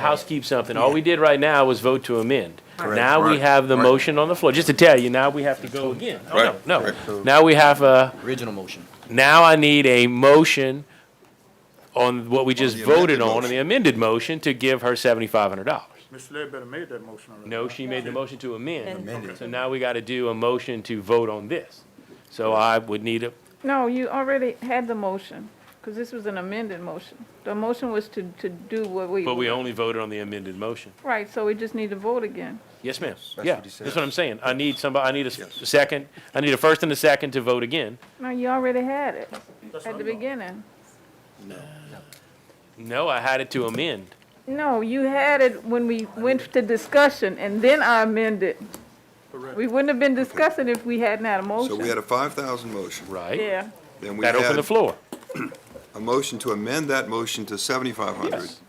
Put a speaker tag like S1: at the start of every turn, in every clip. S1: House keep something. All we did right now was vote to amend.
S2: Correct.
S1: Now we
S3: Right.
S1: have the
S3: Right.
S1: motion on the floor. Just to tell you, now we have to go again. Oh,
S3: Right.
S1: no, no.
S3: Right.
S1: Now we have a,
S2: Original motion.
S1: now I need a motion on what we just
S3: the amended
S1: voted on, on
S3: motion.
S1: the amended motion to give her seventy-five hundred dollars.
S4: Ms. Ledbetter made that motion already.
S1: No, she made the motion to amend.
S3: Amended.
S1: So now we gotta do a motion to vote on this. So I would need a,
S5: No, you already had the motion, because this was an amended motion. The motion was to, to do what we.
S1: but we only voted on the amended motion.
S5: Right, so we just need to vote again.
S1: Yes, ma'am.
S3: That's
S1: Yeah,
S3: what he said.
S1: that's what I'm saying. I need somebody, I need a s-
S3: Yes.
S1: second, I need a first and a second to vote again.
S5: No, you already had it at the beginning.
S1: No, I had it to amend.
S5: No, you had it when we went to discussion, and then I amended. We wouldn't have been discussing if we hadn't had a
S3: So we had
S5: motion.
S3: a five thousand motion.
S1: Right?
S5: Yeah,
S3: Then we
S1: That opened the
S3: had
S1: floor.
S3: a motion to amend that motion to seventy-five hundred.
S1: Yes.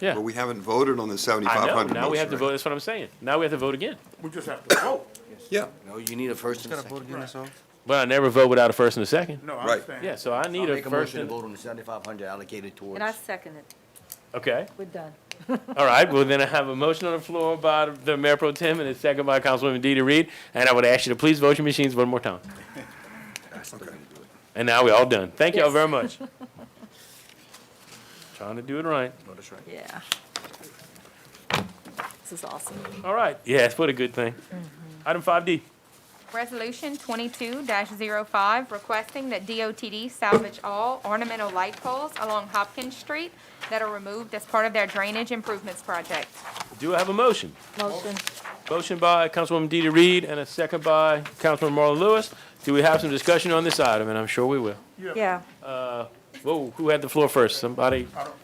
S3: But
S1: Yeah.
S3: we haven't voted on the
S1: I
S3: seventy-five
S1: know.
S3: hundred motion.
S1: Now we have to
S3: right?
S1: vote. That's what I'm saying. Now we have to vote again.
S4: We just have to vote.
S3: Yeah,
S2: No, you need a first and a second.
S1: But I never vote without a first and a second.
S4: No, I
S3: Right.
S4: understand.
S1: Yeah, so I
S2: I'll
S1: need a
S2: make a
S1: first
S2: motion to
S1: and,
S2: vote on the seventy-five hundred allocated towards.
S6: And I second it.
S1: okay.
S6: We're done.
S1: All right. Well, then I have a motion on the floor by the Mayor Pro Tem and a second by Councilwoman Deidre Reed. And I would ask you to please vote your machines one more time. And now we're all done. Thank y'all
S6: Yes.
S1: very much. Trying to do it right.
S6: Yeah. This is awesome.
S1: All right. Yes, what a good thing.
S6: Mm-hmm.
S1: Item five D.
S7: Resolution twenty-two 5 requesting that DOTD salvage all ornamental light poles along Hopkins Street that are removed as part of their drainage improvements project.
S1: Do I have a motion?
S6: Motion.
S1: Motion by Councilwoman Deidre Reed and a second by Councilman Marlon Lewis. Do we have some discussion on this item? And I'm sure we will.
S6: Yeah.
S1: Whoa, who had the floor first? Somebody,
S4: I don't,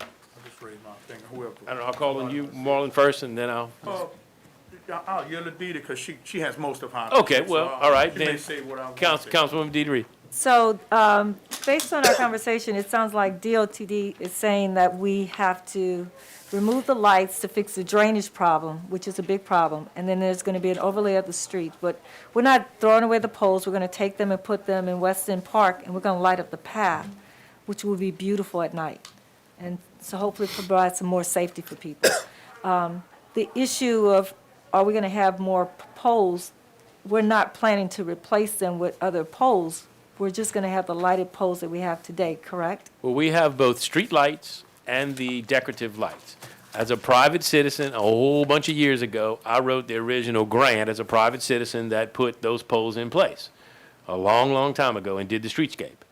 S4: I just raised my finger, whoever.
S1: I don't know, I'll call on you, Marlon, first, and then I'll,
S4: Oh, I'll yell at Deidre because she, she has most of her.
S1: Okay,
S4: so
S1: well,
S4: I'll-
S1: all right,
S4: She may
S1: then.
S4: say what I want to
S1: Council,
S4: say.
S1: Councilwoman Deidre Reed.
S6: So, um, based on our conversation, it sounds like DOTD is saying that we have to remove the lights to fix the drainage problem, which is a big problem, and then there's gonna be an overlay of the street, but we're not throwing away the poles, we're gonna take them and put them in Weston Park, and we're gonna light up the path, which will be beautiful at night, and so hopefully provide some more safety for people. the issue of, are we gonna have more p- poles? We're not planning to replace them with other poles. We're just gonna have the lighted poles that we have today, correct?
S1: Well, we have both street lights and the decorative lights. As a private citizen, a whole bunch of years ago, I wrote the original grant as a private citizen that put those poles in place a long, long time ago and did the streetscape.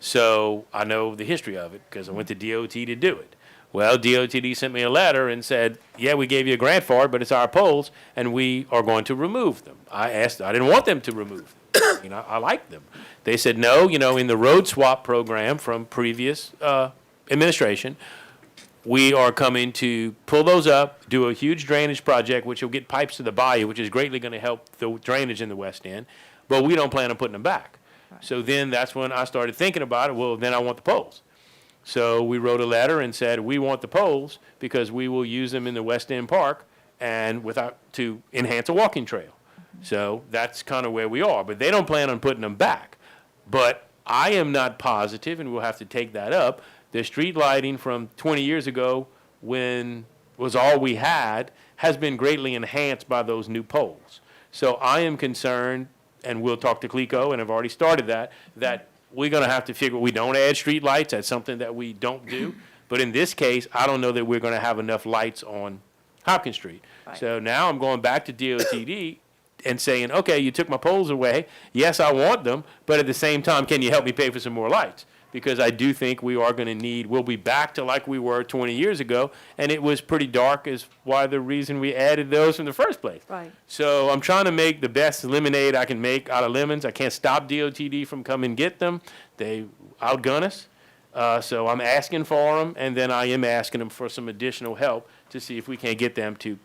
S1: So I know the history of it because I went to DOT to do it. Well, DOTD sent me a letter and said, "Yeah, we gave you a grant for it, but it's our poles, and we are going to remove them." I asked, I didn't want them to remove. Them. you know, I like them. They said, "No, you know, in the road swap program from previous uh, administration, we are coming to pull those up, do a huge drainage project, which will get pipes to the bayou, which is greatly going to help the drainage in the west end, but we don't plan on putting them back. So then that's when I started thinking about it. Well, then I want the poles. So we wrote a letter and said, we want the poles because we will use them in the West End Park and without, to enhance a walking trail. So that's kind of where we are, but they don't plan on putting them back. But I am not positive, and we'll have to take that up, the street lighting from twenty years ago when was all we had has been greatly enhanced by those new poles. So I am concerned, and we'll talk to Clico, and I've already started that, that we're gonna have to figure, we don't add streetlights, that's something that we don't do. But in this case, I don't know that we're gonna have enough lights on Hopkins Street. So now I'm going back to DOTD and saying, okay, you took my poles away, yes, I want them, but at the same time, can you help me pay for some more lights? Because I do think we are gonna need, we'll be back to like we were twenty years ago, and it was pretty dark is why the reason we added those in the first place.
S6: Right.
S1: So I'm trying to make the best lemonade I can make out of lemons. I can't stop DOTD from coming and get them. They outgun us. Uh, so I'm asking for them, and then I am asking them for some additional help to see if we can get them to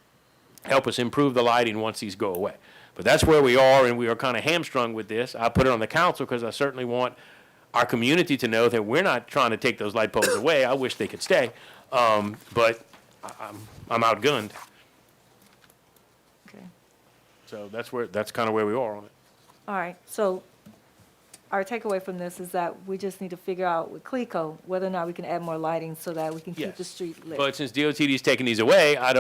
S1: help us improve the lighting once these go away. But that's where we are, and we are kind of hamstrung with this. I put it on the council because I certainly want our community to know that we're not trying to take those light poles away. I wish they could stay, um, but I- I'm, I'm outgunned.
S6: Okay.
S1: So that's where, that's kind of where we are on it.
S6: All right, so our takeaway from this is that we just need to figure out with CLECO whether or not we can add more lighting so that we can keep
S1: Yes.
S6: the street lit.
S1: But since DOTD's taking these away, I don't